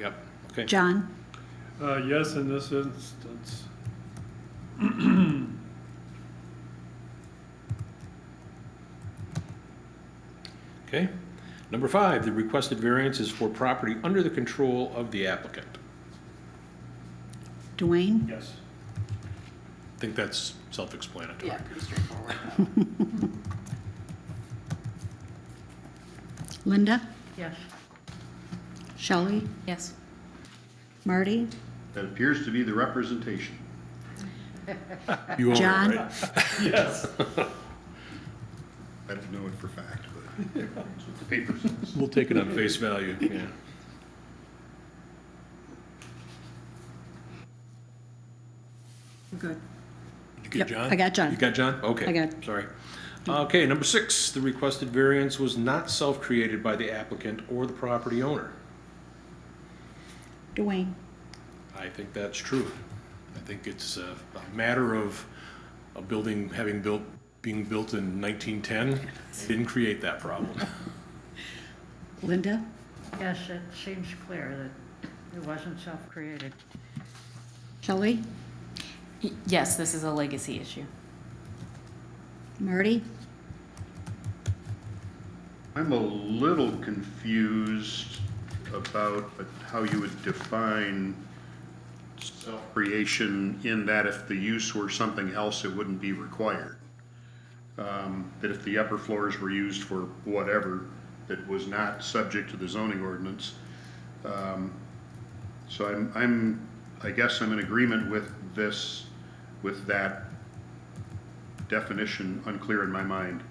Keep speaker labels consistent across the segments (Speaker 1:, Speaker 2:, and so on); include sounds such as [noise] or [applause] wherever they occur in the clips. Speaker 1: Yep, okay.
Speaker 2: John?
Speaker 3: Uh, yes, in this instance.
Speaker 1: Okay. Number five, the requested variance is for property under the control of the applicant.
Speaker 2: Dwayne?
Speaker 3: Yes.
Speaker 1: I think that's self-explanatory.
Speaker 4: Yeah, pretty straightforward.
Speaker 2: Linda?
Speaker 4: Yes.
Speaker 2: Shelley?
Speaker 4: Yes.
Speaker 2: Marty?
Speaker 5: That appears to be the representation.
Speaker 1: You own it,
Speaker 2: John?
Speaker 1: right?
Speaker 3: Yes.
Speaker 5: I don't know it for fact, but [laughs] that's what the paper says.
Speaker 1: We'll take it on face value, yeah.
Speaker 2: Good.
Speaker 1: You get
Speaker 2: Yep,
Speaker 1: John?
Speaker 2: I got John.
Speaker 1: You got John? Okay.
Speaker 2: I got-
Speaker 1: Sorry. Okay, number six, the requested variance was not self-created by the applicant or the property owner.
Speaker 2: Dwayne?
Speaker 1: I think that's true. I think it's uh, a matter of a building having built, being built in 1910 didn't create that problem.
Speaker 2: Linda?
Speaker 6: Yes, it seems clear that it wasn't self-created.
Speaker 2: Shelley?
Speaker 4: Yes, this is a legacy issue.
Speaker 2: Marty?
Speaker 5: I'm a little confused about how you would define self-creation in that if the use were something else, it wouldn't be required. Um, That if the upper floors were used for whatever that was not subject to the zoning ordinance. um, So I'm, I'm, I guess I'm in agreement with this, with that definition unclear in my mind.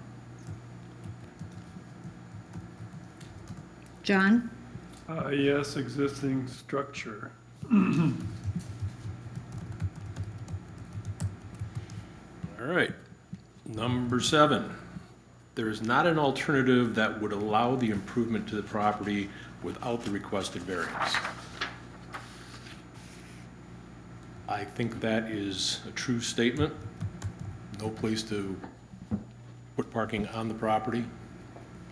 Speaker 2: John?
Speaker 3: Uh, yes, existing structure.
Speaker 1: All right. Number seven, there is not an alternative that would allow the improvement to the property without the requested variance. I think that is a true statement. No place to put parking on the property.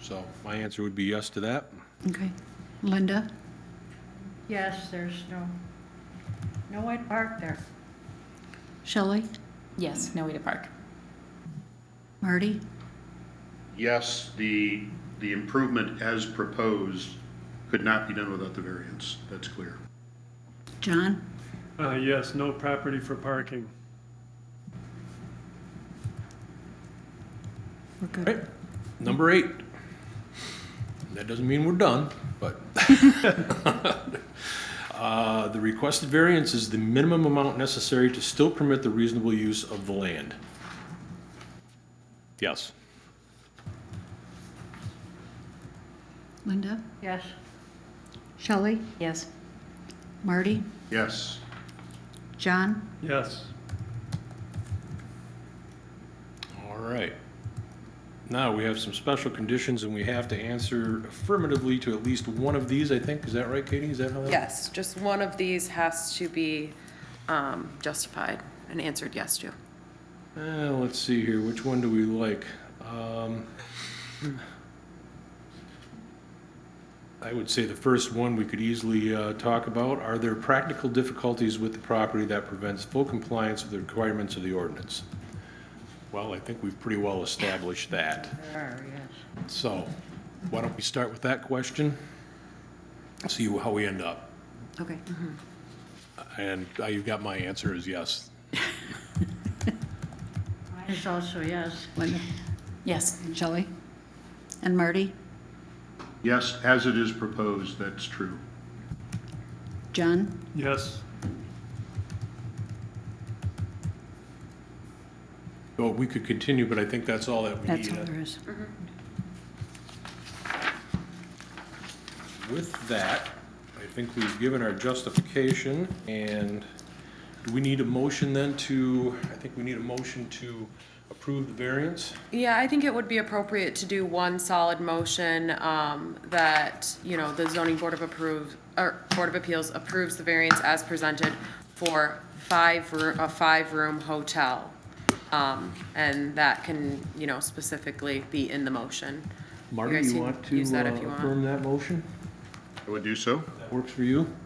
Speaker 1: So my answer would be yes to that.
Speaker 2: Okay. Linda?
Speaker 6: Yes, there's no, no way to park there.
Speaker 2: Shelley?
Speaker 4: Yes, no way to park.
Speaker 2: Marty?
Speaker 5: yes, the, the improvement as proposed could not be done without the variance. That's clear.
Speaker 2: John?
Speaker 3: Uh, yes, no property for parking.
Speaker 2: We're
Speaker 1: All
Speaker 2: good.
Speaker 1: right. Number eight. That doesn't mean we're done, but. [laughs] Uh, The requested variance is the minimum amount necessary to still permit the reasonable use of the land. Yes.
Speaker 2: Linda?
Speaker 6: Yes,
Speaker 2: Shelley?
Speaker 4: Yes.
Speaker 2: Marty?
Speaker 5: Yes,
Speaker 2: John?
Speaker 3: Yes.
Speaker 1: All right. Now, we have some special conditions, and we have to answer affirmatively to at least one of these, I think. Is that right, Katie? Is that how that?
Speaker 4: Yes, just one of these has to be um, justified and answered yes to.
Speaker 1: Uh, let's see here, which one do we like? Um, I would say the first one we could easily uh, talk about. Are there practical difficulties with the property that prevents full compliance with the requirements of the ordinance? Well, I think we've pretty well established that.
Speaker 6: there are, yes.
Speaker 1: So why don't we start with that question? See how we end up.
Speaker 2: Okay.
Speaker 1: And uh, you've got my answer is yes.
Speaker 6: Mine is also yes.
Speaker 2: Linda?
Speaker 4: Yes.
Speaker 2: And Shelley? And Marty?
Speaker 5: yes, as it is proposed, that's true.
Speaker 2: John?
Speaker 3: Yes.
Speaker 1: Well, we could continue, but I think that's all that we need.
Speaker 2: That's all there is.
Speaker 1: With that, I think we've given our justification, and do we need a motion then to, I think we need a motion to approve the variance?
Speaker 7: Yeah, I think it would be appropriate to do one solid motion, um, that, you know, the zoning board of approve, or Board of Appeals approves the variance as presented for five, roo- a five-room hotel. Um, and that can, you know, specifically be in the motion.
Speaker 1: Marty,
Speaker 7: guys
Speaker 1: you
Speaker 7: can
Speaker 1: want to
Speaker 7: use that if you
Speaker 1: uh,
Speaker 7: want.
Speaker 1: affirm that motion?
Speaker 5: I would do so.
Speaker 1: That works for you?